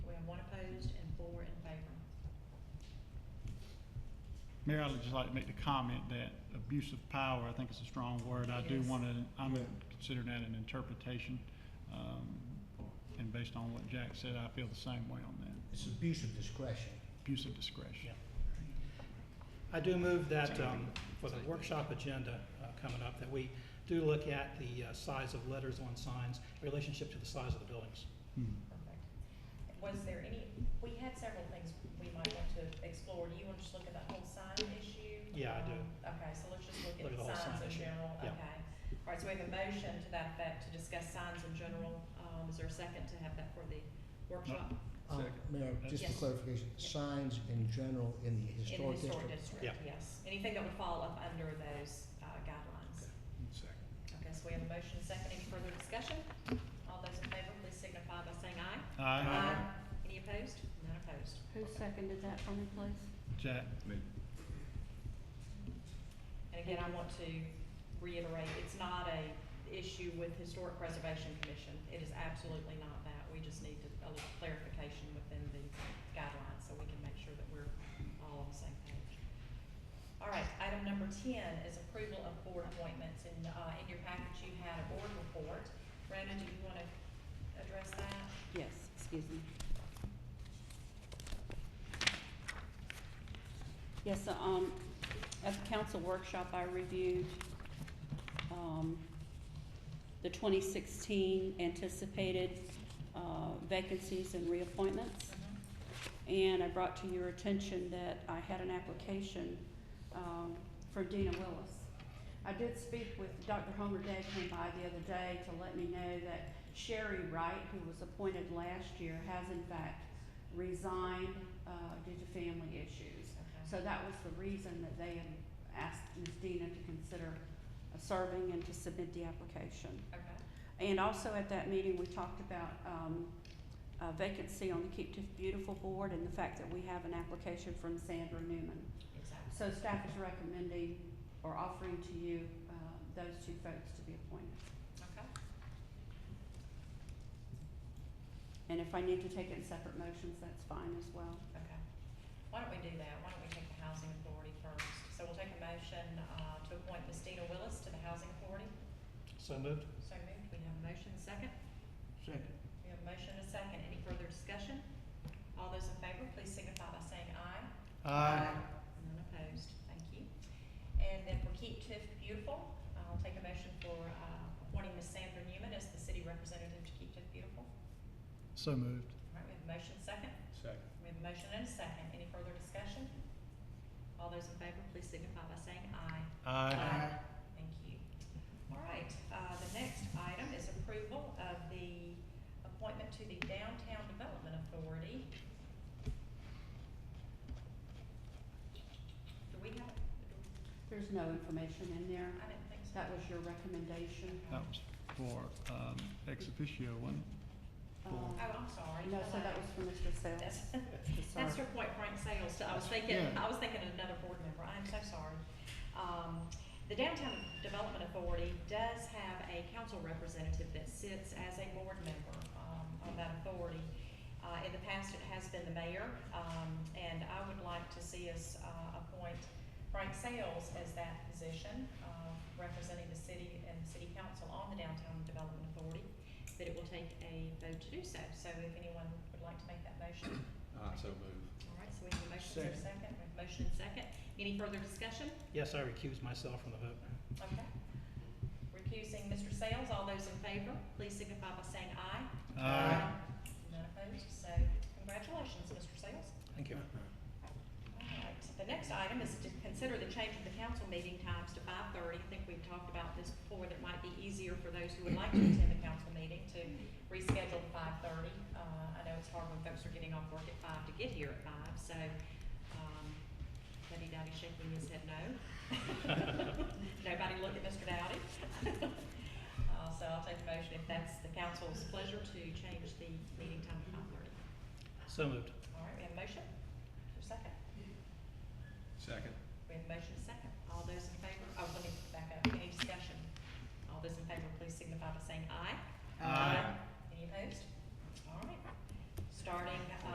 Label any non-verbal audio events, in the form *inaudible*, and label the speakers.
Speaker 1: Mayor, I'd just like to make the comment that abuse of power, I think is a strong word. I do
Speaker 2: Yes.
Speaker 1: want to, I'm considering that an interpretation. um, And based on what Jack said, I feel the same way on that.
Speaker 3: It's abuse of discretion.
Speaker 1: Abuse of discretion.
Speaker 2: I do move that, um, for the workshop agenda, uh, coming up, that we do look at the, uh, size of letters on signs, relationship to the size of the buildings.
Speaker 1: Hmm.
Speaker 4: Perfect. Was there any, we had several things we might want to explore. Do you want to just look at the whole sign issue?
Speaker 2: Yeah, I do.
Speaker 4: Um, Okay, so let's just look at
Speaker 2: Look at
Speaker 4: the
Speaker 2: the whole
Speaker 4: signs
Speaker 2: sign
Speaker 4: in
Speaker 2: issue.
Speaker 4: general, okay.
Speaker 2: Yeah.
Speaker 4: All right, so we have a motion to that effect, to discuss signs in general. Um, is there a second to have that for the workshop?
Speaker 3: Uh, Mayor, just for
Speaker 4: Yes.
Speaker 3: clarification, signs in general in the
Speaker 4: In the
Speaker 3: historic
Speaker 4: historic
Speaker 3: district.
Speaker 4: district,
Speaker 2: Yeah.
Speaker 4: yes. Anything that would fall up under those, uh, guidelines. Okay, so we have a motion, second. Any further discussion? All those in favor, please signify by saying aye.
Speaker 1: Aye.
Speaker 4: Uh, Any opposed? None opposed.
Speaker 5: Who seconded that for me, please?
Speaker 1: Jack?
Speaker 4: And again, I want to reiterate, it's not a issue with Historic Preservation Commission. It is absolutely not that. We just need to- a little clarification within the guidelines so we can make sure that we're all on the same page. All right, item number ten is approval of board appointments. And, uh, in your package, you had a board report. Brandon, do you want to address that?
Speaker 5: Yes, excuse me. Yes, so, um, at the council workshop, I reviewed, um, the twenty sixteen anticipated, uh, vacancies and reappointments. And I brought to your attention that I had an application um, for Dina Willis. I did speak with Dr. Homer Day came by the other day to let me know that Sherry Wright, who was appointed last year, has in fact resigned uh, due to family issues.
Speaker 4: Okay.
Speaker 5: So that was the reason that they had asked Ms. Dina to consider uh, serving and to submit the application.
Speaker 4: Okay.
Speaker 5: And also at that meeting, we talked about um, a vacancy on the Keep Tiff Beautiful Board and the fact that we have an application from Sandra Newman.
Speaker 4: Exactly.
Speaker 5: So staff is recommending or offering to you uh, those two folks to be appointed.
Speaker 4: Okay.
Speaker 5: And if I need to take it in separate motions, that's fine as well.
Speaker 4: Okay. Why don't we do that? Why don't we take the housing authority first? So we'll take a motion, uh, to appoint Ms. Dina Willis to the housing authority.
Speaker 2: So moved?
Speaker 4: So moved. We have a motion, and a second.
Speaker 3: Second.
Speaker 4: We have a motion, and a second. Any further discussion? All those in favor, please signify by saying aye. None opposed. Thank you. And then for Keep Tiff Beautiful, I'll take a motion for, uh, appointing Ms. Sandra Newman as the city representative to Keep Tiff Beautiful.
Speaker 1: So moved.
Speaker 4: All right, we have a motion, second.
Speaker 3: Second.
Speaker 4: We have a motion and a second. Any further discussion? All those in favor, please signify by saying aye. Aye. Thank you. All right, uh, the next item is approval of the appointment to the Downtown Development Authority. Do we have, do-
Speaker 5: There's no information in there.
Speaker 4: I didn't think so. Oh,
Speaker 5: That was your recommendation.
Speaker 1: That was for um, ex officio, wasn't
Speaker 5: Um,
Speaker 4: Oh, I'm sorry.
Speaker 5: No, so that was for Mr. Sales.
Speaker 4: That's,
Speaker 5: Sorry.
Speaker 4: that's your point, Frank Sales, I was thinking,
Speaker 1: Yeah.
Speaker 4: I was thinking of another board member, I'm so sorry. Um, the Downtown Development Authority does have a council representative that sits as a board member, um, on that authority. Uh, in the past, it has been the mayor, um, and I would like to see us, uh, appoint Frank Sales as that position, uh, representing the city and the city council on the Downtown Development Authority, but it will take a vote to do so. So if anyone would like to make that motion,
Speaker 6: I so move.
Speaker 4: all right, so we have a motion, and a second, we have a motion and second. Any further discussion?
Speaker 2: Yes, I recuse myself from the vote.
Speaker 4: Okay. Recusing Mr. Sales, all those in favor, please signify by saying aye.
Speaker 1: it? Aye.
Speaker 4: None opposed, so congratulations, Mr. Sales.
Speaker 2: Thank you.
Speaker 4: All right, the next item is to consider the change of the council meeting times to five thirty. I think we've talked about this before, that might be easier for those who would like to attend the council meeting to reschedule to five thirty. Uh, I know it's hard when folks are getting off work at five to get here at five, so, um, Buddy Dowdy shaking his head no. *laughs* Nobody look at Mr. Dowdy. *laughs* Uh, so I'll take a motion if that's the council's pleasure to change the meeting time to five thirty.
Speaker 2: So moved.
Speaker 4: All right, we have a motion? Is there a second?
Speaker 6: Second.
Speaker 4: We have a motion and a second. All those in favor, oh, let me back up. Any discussion? All those in favor, please signify by saying aye.
Speaker 1: Aye.
Speaker 4: Any opposed? All right. Starting, uh,